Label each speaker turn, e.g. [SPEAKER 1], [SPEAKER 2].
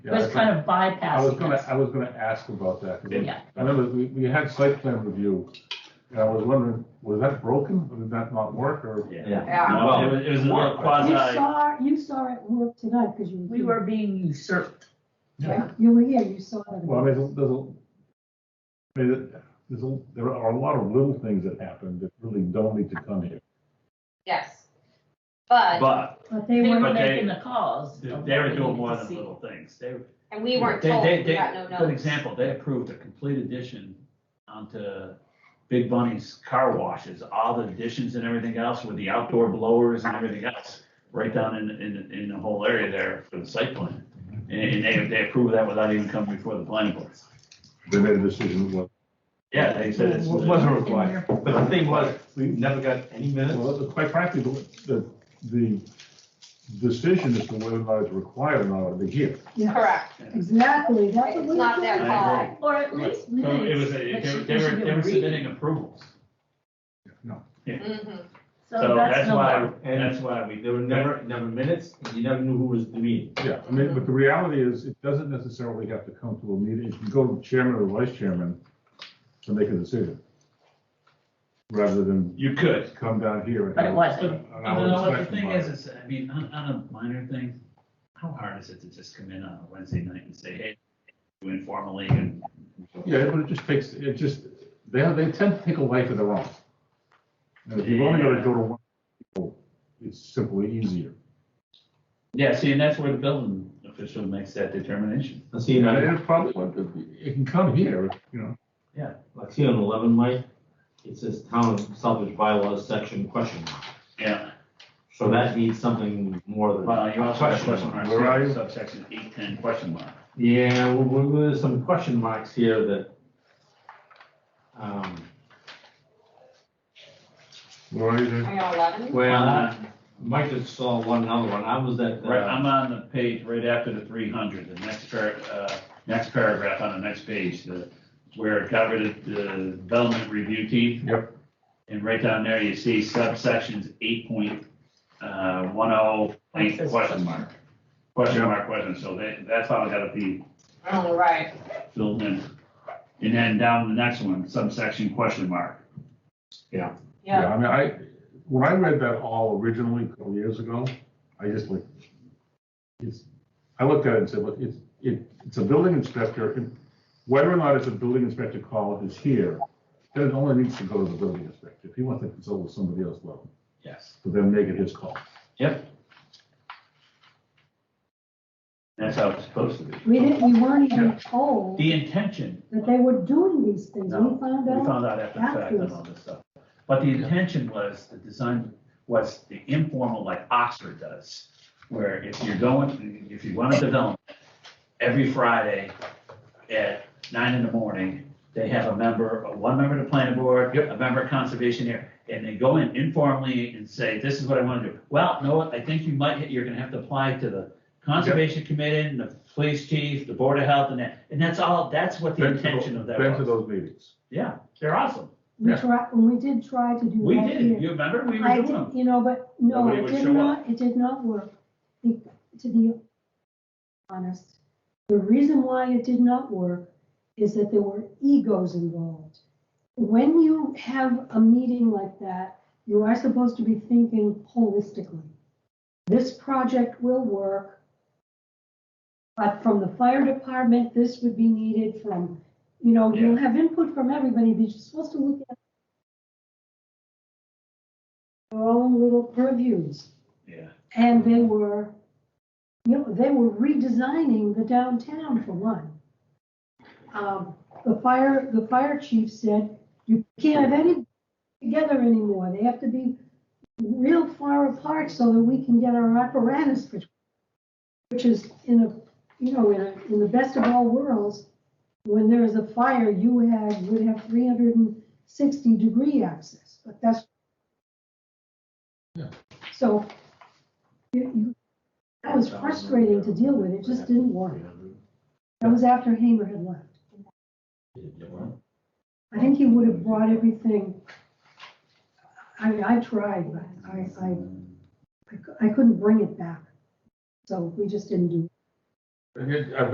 [SPEAKER 1] It was kind of
[SPEAKER 2] I was
[SPEAKER 1] bypassing
[SPEAKER 2] gonna,
[SPEAKER 1] us.
[SPEAKER 2] I was gonna ask about that. 'cause
[SPEAKER 1] Yeah.
[SPEAKER 2] I remember we, we had site plan review, and I was wondering, was that broken, or did that not work, or?
[SPEAKER 3] Yeah.
[SPEAKER 4] Yeah.
[SPEAKER 3] No, it was, it was a
[SPEAKER 5] You
[SPEAKER 3] quasi,
[SPEAKER 5] saw, you saw it work tonight, because you.
[SPEAKER 1] We were being usurped.
[SPEAKER 5] Yeah, You were here, you saw it.
[SPEAKER 2] Well, I mean, there's, a- I mean, there's, a- there are a lot of little things that happen that really don't need to come here.
[SPEAKER 4] Yes. But,
[SPEAKER 3] but
[SPEAKER 5] But they
[SPEAKER 1] They
[SPEAKER 5] were,
[SPEAKER 1] were
[SPEAKER 3] But they-
[SPEAKER 1] making the calls.
[SPEAKER 3] they
[SPEAKER 1] of
[SPEAKER 3] were
[SPEAKER 1] what we
[SPEAKER 3] doing
[SPEAKER 1] needed
[SPEAKER 3] more
[SPEAKER 1] to
[SPEAKER 3] than
[SPEAKER 1] see.
[SPEAKER 3] little things. They were.
[SPEAKER 4] and we weren't
[SPEAKER 3] they-
[SPEAKER 4] told,
[SPEAKER 3] they-
[SPEAKER 4] we
[SPEAKER 3] they-
[SPEAKER 4] got no notice.
[SPEAKER 3] Good example, they approved a complete addition onto Big Bunny's car washes, all the additions and everything else with the outdoor blowers and everything else, right down in, in, in the whole area there for the site plan. And they, they approved that without even coming before the planning board.
[SPEAKER 2] They made a decision, well,
[SPEAKER 3] Yeah, they said it's.
[SPEAKER 6] It wasn't
[SPEAKER 1] In
[SPEAKER 6] required,
[SPEAKER 1] there.
[SPEAKER 6] but the thing was, we never got any minutes.
[SPEAKER 2] well, quite frankly, the, the, the decision as to whether or not it's required or not ought to be here.
[SPEAKER 5] yeah,
[SPEAKER 4] Correct.
[SPEAKER 5] exactly, that's what we
[SPEAKER 4] It's
[SPEAKER 5] were
[SPEAKER 4] not their
[SPEAKER 5] doing.
[SPEAKER 3] I
[SPEAKER 1] Or
[SPEAKER 3] agree.
[SPEAKER 4] call.
[SPEAKER 1] at
[SPEAKER 3] Right.
[SPEAKER 1] least
[SPEAKER 3] So It
[SPEAKER 1] minutes.
[SPEAKER 3] was, a-
[SPEAKER 1] that
[SPEAKER 3] they
[SPEAKER 1] she-
[SPEAKER 3] were, they
[SPEAKER 1] she
[SPEAKER 3] were,
[SPEAKER 1] could
[SPEAKER 3] they were
[SPEAKER 1] read.
[SPEAKER 3] submitting approvals.
[SPEAKER 2] No.
[SPEAKER 4] Mhm.
[SPEAKER 3] So that's
[SPEAKER 1] no
[SPEAKER 3] why,
[SPEAKER 1] more.
[SPEAKER 6] And
[SPEAKER 3] that's why we,
[SPEAKER 6] there were never, never minutes, and you never knew who was the meeting.
[SPEAKER 2] Yeah, I mean, but the reality is, it doesn't necessarily have to come to a meeting, it can go to the chairman or vice chairman to make a decision. Rather than
[SPEAKER 3] you could.
[SPEAKER 2] come down here. and-
[SPEAKER 1] But it wasn't.
[SPEAKER 2] and I
[SPEAKER 3] No,
[SPEAKER 2] would
[SPEAKER 3] no, what the
[SPEAKER 2] expect
[SPEAKER 3] thing
[SPEAKER 2] them
[SPEAKER 3] is, is, I mean, on, on a minor thing, how hard is it to just come in on a Wednesday night and say, hey, informally and.
[SPEAKER 2] Yeah, but it just takes, it just, they, they tend to take a life of their own. And if you've only got to go to one, people, it's simply easier.
[SPEAKER 3] Yeah, see, and that's where the building official makes that determination.
[SPEAKER 6] Let's see,
[SPEAKER 2] And
[SPEAKER 6] like,
[SPEAKER 2] it probably, would- it can come here, you know.
[SPEAKER 6] let's see on eleven, Mike, it says town salvage bylaws section question mark.
[SPEAKER 3] Yeah,
[SPEAKER 6] So that needs something more than.
[SPEAKER 3] well, Uh, you also have
[SPEAKER 6] Question
[SPEAKER 3] question mark,
[SPEAKER 6] mark.
[SPEAKER 2] Where are you?
[SPEAKER 3] subsection eight ten question mark.
[SPEAKER 6] Yeah, well, well, there's some question marks here that, um,
[SPEAKER 2] Where are you there?
[SPEAKER 4] Are you on eleven?
[SPEAKER 3] Uh,
[SPEAKER 6] well, Mike just saw one another one. I was at,
[SPEAKER 3] Right,
[SPEAKER 6] uh,
[SPEAKER 3] I'm on the page right after the three hundred, the next par, uh, next paragraph on the next page, the, where it got rid of the development review team.
[SPEAKER 2] Yep.
[SPEAKER 3] And right down there, you see subsections eight point, uh, one oh, eight,
[SPEAKER 1] Says
[SPEAKER 3] question
[SPEAKER 1] question
[SPEAKER 3] mark. Question
[SPEAKER 2] Yep.
[SPEAKER 3] mark, question, so that, that's how it gotta be
[SPEAKER 4] Oh, right.
[SPEAKER 3] filled in. And then down the next one, subsection question mark.
[SPEAKER 2] Yeah,
[SPEAKER 4] Yeah.
[SPEAKER 2] I mean, I, when I read that all originally a couple years ago, I just like, it's, I looked at it and said, look, it's, it, it's a building inspector, and whether or not it's a building inspector call is here, then it only needs to go to the building inspector. If he wants to consult with somebody else, well,
[SPEAKER 3] Yes.
[SPEAKER 2] so then make it his call.
[SPEAKER 3] That's how it's supposed to be.
[SPEAKER 5] We didn't, we weren't even told
[SPEAKER 3] The intention,
[SPEAKER 5] that they were doing these things,
[SPEAKER 3] No,
[SPEAKER 5] we found
[SPEAKER 3] We
[SPEAKER 5] out.
[SPEAKER 3] found out after the fact and all this stuff. But the intention was, the design was the informal like Oxford does, where if you're going, if you want to develop, every Friday at nine in the morning, they have a member, one member of the planning board, a member of conservation here, and they go in informally and say, this is what I want to do. Well, no, I think you might, you're gonna have to apply to the conservation committee and the police chief, the board of health and that, and that's all, that's what the
[SPEAKER 2] Been to tho-
[SPEAKER 3] intention of that was.
[SPEAKER 2] Been to those meetings.
[SPEAKER 3] Yeah, they're awesome.
[SPEAKER 5] We
[SPEAKER 2] Yeah.
[SPEAKER 5] tried, we did try to do
[SPEAKER 3] We
[SPEAKER 5] that here.
[SPEAKER 3] did, you remember, we
[SPEAKER 5] I
[SPEAKER 3] were
[SPEAKER 5] did,
[SPEAKER 3] doing them.
[SPEAKER 5] you know, but no,
[SPEAKER 3] Nobody
[SPEAKER 5] it
[SPEAKER 3] would
[SPEAKER 5] did
[SPEAKER 3] show
[SPEAKER 5] not, it did not work. Be- To be honest, the reason why it did not work is that there were egos involved. When you have a meeting like that, you are supposed to be thinking holistically. This project will work. But from the fire department, this would be needed from, you know, you'll have input from everybody, but you're supposed to look at their own little purviews.
[SPEAKER 3] Yeah,
[SPEAKER 5] And they were, you know, they were redesigning the downtown for one. Um, the fire, the fire chief said, you can't have any together anymore. They have to be real far apart so that we can get our apparatus, which, which is in a, you know, in a, in the best of all worlds, when there is a fire, you have, would have three hundred and sixty degree access, but that's.
[SPEAKER 2] Yeah.
[SPEAKER 5] So you, you, that was frustrating to deal with. It just didn't work. That was after Hamer had left. I think he would have brought everything. I mean, I tried, but I, I, I cou- I couldn't bring it back. So we just didn't do it.
[SPEAKER 2] I mean, I've